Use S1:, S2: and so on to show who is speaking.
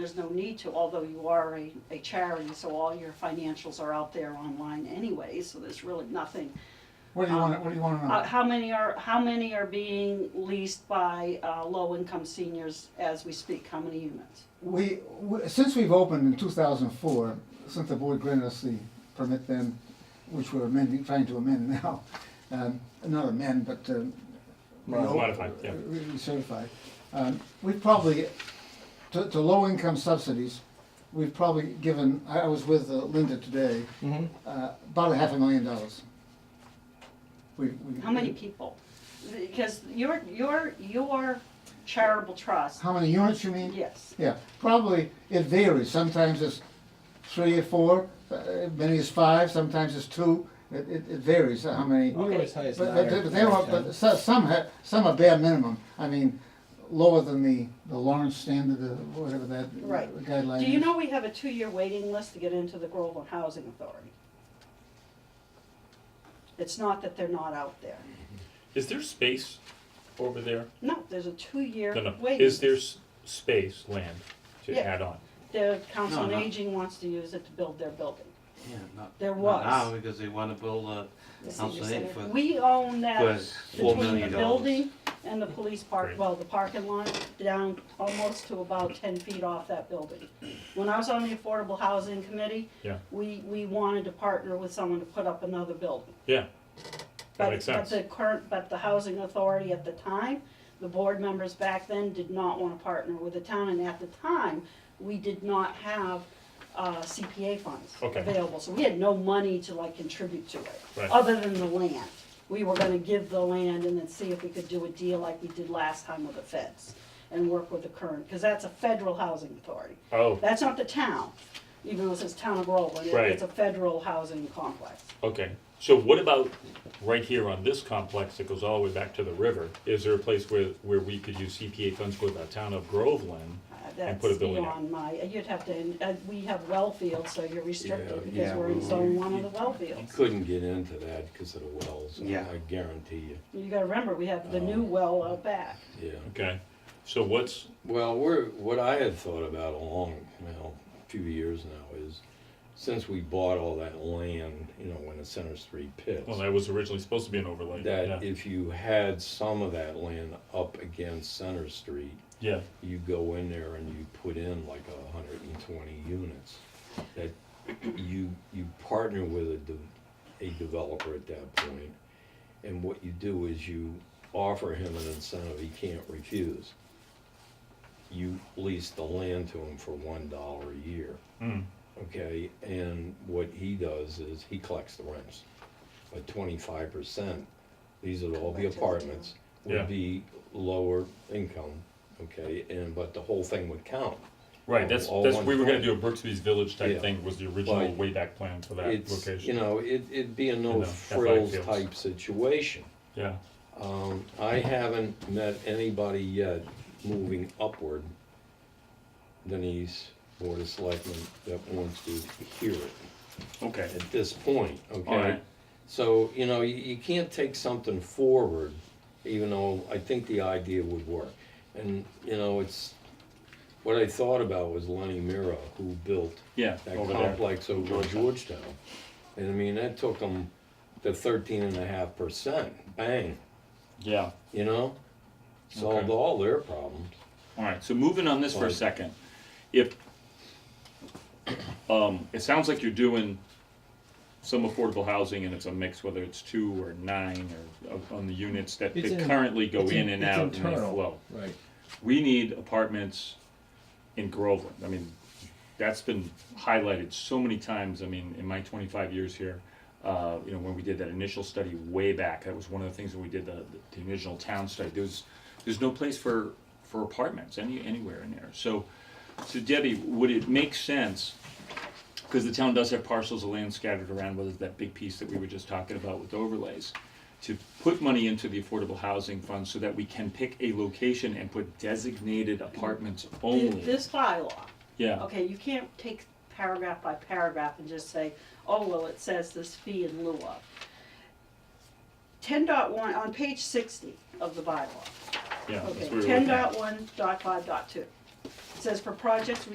S1: There's no need to, although you are a, a charity, so all your financials are out there online anyway, so there's really nothing.
S2: What do you want, what do you want to
S1: Uh,
S2: know?
S1: how many are, how many are being leased by, uh, low-income seniors as we speak? How many units?
S2: We, we- since we've opened in 2004, since the board granted us the permit then, which we're amending, trying to amend now, um, not amend, but um,
S3: Modify.
S2: reno-
S3: Modify, yeah.
S2: re- Recertify. Um, We've probably, to to low-income subsidies, we've probably given, I I was with uh, Linda today,
S3: Mm-hmm.
S2: uh, about a half a million dollars. We- we-
S1: How many people? Because your, your, your charitable trust,
S2: How many units you mean?
S1: yes.
S2: Yeah, probably, it varies, sometimes it's three or four, uh, many is five, sometimes it's two, it, it it varies uh, how many.
S3: We
S2: But,
S3: were as high as
S2: but
S3: nine or
S2: but they were,
S3: ten.
S2: but so- some have, some are bare minimum, I mean, lower than the, the Lawrence standard, or whatever that
S1: Right.
S2: guideline is.
S1: Do you know we have a two-year waiting list to get into the Groveland Housing Authority? It's not that they're not out there.
S4: Is there space over there?
S1: No, there's a two-year
S4: No, no.
S1: waiting.
S4: Is there s- space, land to
S1: Yeah.
S4: add on?
S1: The Council on
S5: No, no.
S1: Aging wants to use it to build their building.
S5: Yeah, not,
S1: There
S5: not now,
S1: was.
S5: because they wanna build a
S6: The senior
S5: council
S6: center.
S5: aid for,
S1: We own that
S5: for four
S1: between the
S5: million dollars.
S1: building and the police park,
S4: Great.
S1: well, the parking lot, down almost to about ten feet off that building. When I was on the Affordable Housing Committee,
S4: Yeah.
S1: we, we wanted to partner with someone to put up another building.
S4: Yeah, that
S1: But-
S4: makes sense.
S1: But the current, but the housing authority at the time, the board members back then did not want to partner with the town, and at the time, we did not have uh, CPA funds
S4: Okay.
S1: available, so we had no money to like contribute to it,
S4: Right.
S1: other than the land. We were gonna give the land and then see if we could do a deal like we did last time with the feds and work with the current, because that's a federal housing authority.
S4: Oh,
S1: That's not the town, even though it says town of Groveland, it-
S4: Right.
S1: it's a federal housing complex.
S4: okay. So what about right here on this complex that goes all the way back to the river? Is there a place where, where we could use CPA funds for the town of Groveland?
S1: Uh,
S4: And put a
S1: That's
S4: building
S1: beyond my, you'd have to, uh, we have well fields, so you're restricted
S7: Yeah,
S1: because
S5: yeah,
S1: we're in
S5: well,
S1: zone
S7: you-
S1: one of the
S7: you-
S1: well
S7: You
S1: fields.
S7: couldn't get into that because of the wells, I
S5: Yeah.
S7: I guarantee you,
S1: You gotta remember, we have the new
S7: Oh.
S1: well out back.
S7: yeah.
S4: Okay, so what's,
S7: Well, we're, what I had thought about a long, well, few years now is, since we bought all that land, you know, in the Center Street pits,
S4: well, that was originally supposed to be an overlay.
S7: that
S4: yeah.
S7: if you had some of that land up against Center Street,
S4: Yeah,
S7: you go in there and you put in like a hundred and twenty units. That you, you partner with a, de- a developer at that point, and what you do is you offer him an incentive he can't refuse. You lease the land to him for one dollar a year,
S4: mm,
S7: okay, and what he does is he collects the rents. But twenty-five percent, these are all the
S6: Collected, yeah.
S7: apartments,
S4: Yeah.
S7: would be lower income, okay, and, but the whole thing would count.
S4: right, that's,
S7: All
S4: that's,
S7: one
S4: we were gonna
S7: point.
S4: do a Brooksby's Village
S7: Yeah.
S4: type thing, was the original
S7: Right.
S4: way back plan for that
S7: It's, you
S4: location.
S7: know, it, it'd be a
S4: know,
S7: no
S4: F I
S7: frills
S4: fields.
S7: type situation.
S4: Yeah,
S7: Um, I haven't met anybody yet moving upward, Denise, Board of Selectmen, that wants to hear it.
S4: okay,
S7: at this point, okay?
S4: Alright.
S7: So, you know, you, you can't take something forward, even though I think the idea would work. And, you know, it's, what I thought about was Lenny Mira, who built
S4: yeah,
S7: that
S4: over there.
S7: complex over in
S4: Georgetown.
S7: Georgetown. And I mean, that took them to thirteen and a half percent, bang,
S4: Yeah.
S7: you know? Solved
S4: Okay.
S7: all their problems.
S4: All right, so moving on this for a
S7: Right.
S4: second, if, um, it sounds like you're doing some affordable housing and it's a mix, whether it's two or nine or of- on the units that
S3: It's
S4: that
S3: in-
S4: currently go
S3: it's in-
S4: in and
S3: it's
S4: out and they
S3: internal.
S4: flow.
S3: Right.
S4: We need apartments in Groveland, I mean, that's been highlighted so many times, I mean, in my twenty-five years here. Uh, you know, when we did that initial study way back, that was one of the things when we did the, the original town study, there's, there's no place for, for apartments any, anywhere in there, so. So Debbie, would it make sense, cause the town does have parcels of land scattered around, whether it's that big piece that we were just talking about with overlays. To put money into the affordable housing fund so that we can pick a location and put designated apartments
S1: Th-
S4: only,
S1: This bylaw,
S4: yeah,
S1: okay, you can't take paragraph by paragraph and just say, oh, well, it says this fee in lieu of. Ten dot one, on page sixty of the bylaw,
S4: yeah, that's what we
S1: okay,
S4: were looking
S1: ten
S4: at.
S1: dot one dot five dot two. It Says for projects